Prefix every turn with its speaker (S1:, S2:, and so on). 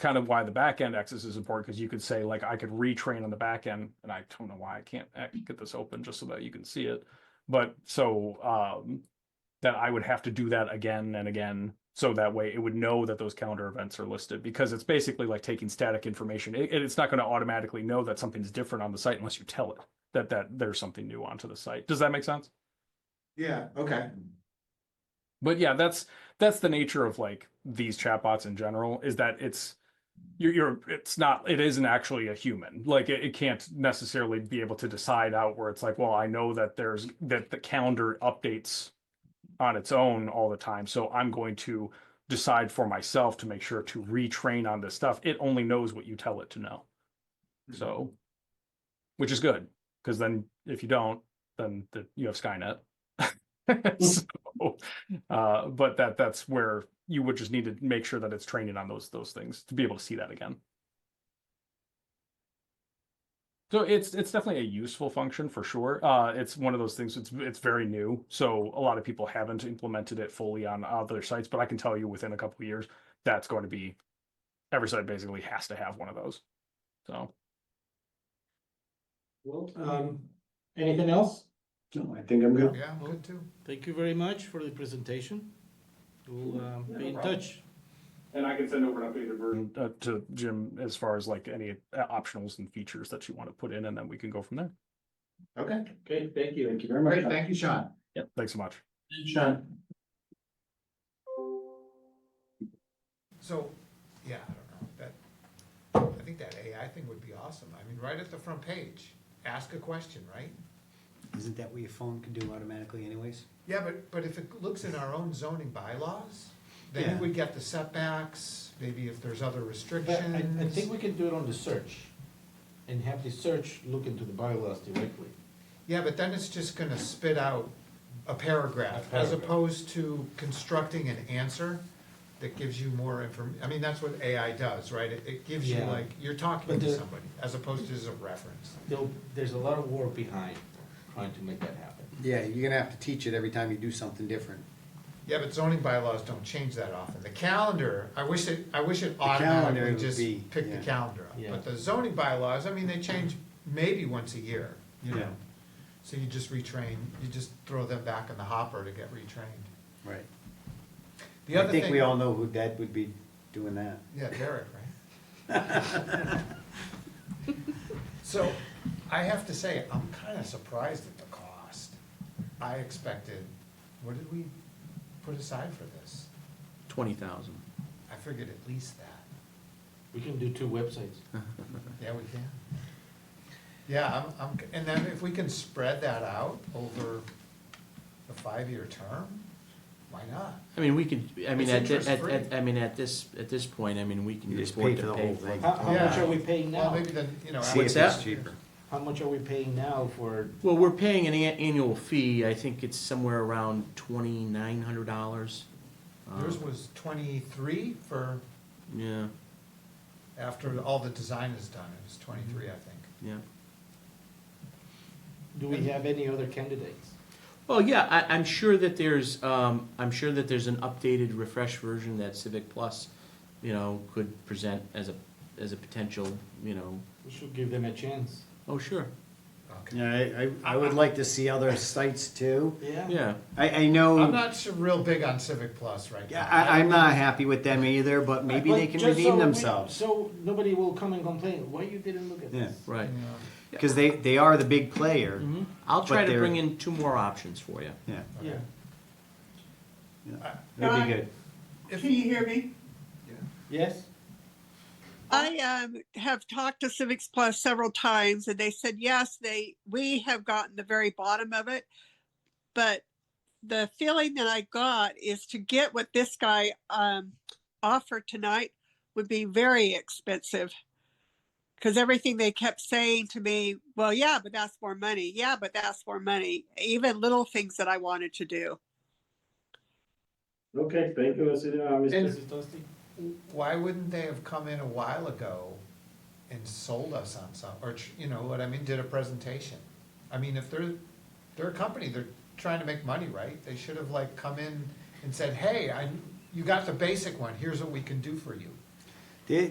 S1: kind of why the back end access is important because you could say like I could retrain on the back end, and I don't know why I can't act- get this open just so that you can see it. But so um, that I would have to do that again and again. So that way it would know that those calendar events are listed because it's basically like taking static information. It, it's not going to automatically know that something's different on the site unless you tell it that that there's something new onto the site. Does that make sense?
S2: Yeah, okay.
S1: but yeah that's that's the nature of like these chatbots in general is that it's you're, you're it's not it isn't actually a human like it, it can't necessarily be able to decide out where it's like well i know that there's that the calendar updates on its own all the time so i'm going to decide for myself to make sure to retrain on this stuff it only knows what you tell it to know so which is good because then if you don't then the, you have skynet so, uh, but that that's where you would just need to make sure that it's training on those those things to be able to see that again. So it's it's definitely a useful function for sure. Uh, it's one of those things. It's it's very new, so a lot of people haven't implemented it fully on other sites. But I can tell you, within a couple of years, that's going to be every site basically has to have one of those. So
S3: Well, um, anything else?
S4: No, I think I'm good.
S2: Yeah, I'm good too.
S3: Thank you very much for the presentation. We'll, um, be in touch.
S1: And I can send over an updated version uh, to Jim as far as like any uh, optionals and features that you want to put in, and then we can go from there.
S2: Okay,
S3: Okay, thank you.
S4: Thank you very
S2: great,
S4: much.
S2: thank you, Sean.
S1: Yep. Thanks so much.
S4: Sean.
S2: So, yeah, I don't know, that, I think that AI thing would be awesome. I mean, right at the front page, ask a question, right?
S5: Isn't that what your phone can do automatically anyways?
S2: Yeah, but, but if it looks in our own zoning bylaws, then
S5: Yeah.
S2: we would get the setbacks, maybe if there's other
S3: But I, I think
S2: restrictions.
S3: we can do it on the search and have the search look into the bylaws directly.
S2: Yeah, but then it's just gonna spit out a paragraph,
S3: A
S2: as
S3: paragraph.
S2: opposed to constructing an answer that gives you more inform, I mean, that's what AI does, right? It, it gives you
S3: Yeah.
S2: like, you're talking
S3: But
S2: to
S3: the-
S2: somebody, as opposed to just a reference.
S3: There'll, there's a lot of work behind trying to make that happen.
S5: Yeah, you're gonna have to teach it every time you do something different.
S2: Yeah, but zoning bylaws don't change that often. The calendar, I wish it, I wish it
S5: calendar
S2: automatically
S5: would
S2: just
S5: be-
S2: picked the
S5: yeah.
S2: calendar up.
S3: Yeah.
S2: But the zoning bylaws, I mean, they change maybe once a year, you know?
S5: Yeah.
S2: So you just retrain, you just throw them back in the hopper to get retrained.
S5: Right.
S2: The other
S5: I think
S2: thing-
S5: we all know who that would be doing that.
S2: Yeah, Derek, right? So, I have to say, I'm kinda surprised at the cost. I expected, what did we put aside for this?
S6: Twenty thousand.
S2: I figured at least that.
S3: We can do two websites.
S2: Yeah, we can. Yeah, I'm, I'm, and then if we can spread that out over the five-year term, why not?
S6: I mean, we could, I mean,
S2: It's
S6: at, thi- at,
S2: interest-free.
S6: at, I mean, at this, at this point, I mean, we can
S5: You just
S6: afford
S5: pay for
S6: to
S5: the
S6: pay
S5: whole
S6: for
S5: thing.
S6: it.
S3: How, how much
S2: Yeah.
S3: are we paying
S2: Well,
S3: now?
S2: maybe then, you know.
S5: See
S6: What's
S5: if
S6: that?
S5: it's cheaper.
S3: How much are we paying now for,
S6: Well, we're paying an an- annual fee, I think it's somewhere around twenty-nine hundred dollars.
S2: Yours was twenty-three for,
S6: Yeah,
S2: after all the design is done, it was twenty-three, I think.
S6: yeah.
S3: do we have any other candidates?
S6: Well, yeah, I, I'm sure that there's, um, I'm sure that there's an updated, refreshed version that Civic Plus, you know, could present as a, as a potential, you know,
S3: We should give them a chance.
S6: oh, sure,
S2: Okay.
S5: Yeah, I, I, I would like to see other sites too.
S6: yeah.
S5: I, I
S2: I'm
S5: know,
S2: not so real big on Civic Plus right now.
S5: I, I'm not happy with them either, but maybe
S3: But
S5: they can
S3: just so
S5: redeem
S3: we-
S5: themselves.
S3: So nobody will come and complain, why you didn't look at
S5: Yeah.
S3: this?
S6: Right.
S2: Yeah.
S5: Cause they, they are the big player.
S6: Mhm. I'll try
S5: But
S6: to
S5: they're-
S6: bring in two more options for you.
S5: Mm-hmm. Yeah, Uh,
S3: Yeah.
S5: that'd be good.
S7: Can you hear me?
S3: Yes?
S7: I um, have talked to Civics Plus several times and they said, yes, they, we have gotten the very bottom of it. But the feeling that I got is to get what this guy um, offered tonight would be very expensive. Because everything they kept saying to me, well, yeah, but that's more money. Yeah, but that's more money. Even little things that I wanted to do.
S3: Okay, thank you,
S2: And- Why wouldn't they have come in a while ago and sold us on some, or, tr- you know what I mean, did a presentation? I mean, if they're, they're a company, they're trying to make money, right? They should have like come in and said, hey, I, you got the basic one, here's what we can do for you.
S5: They,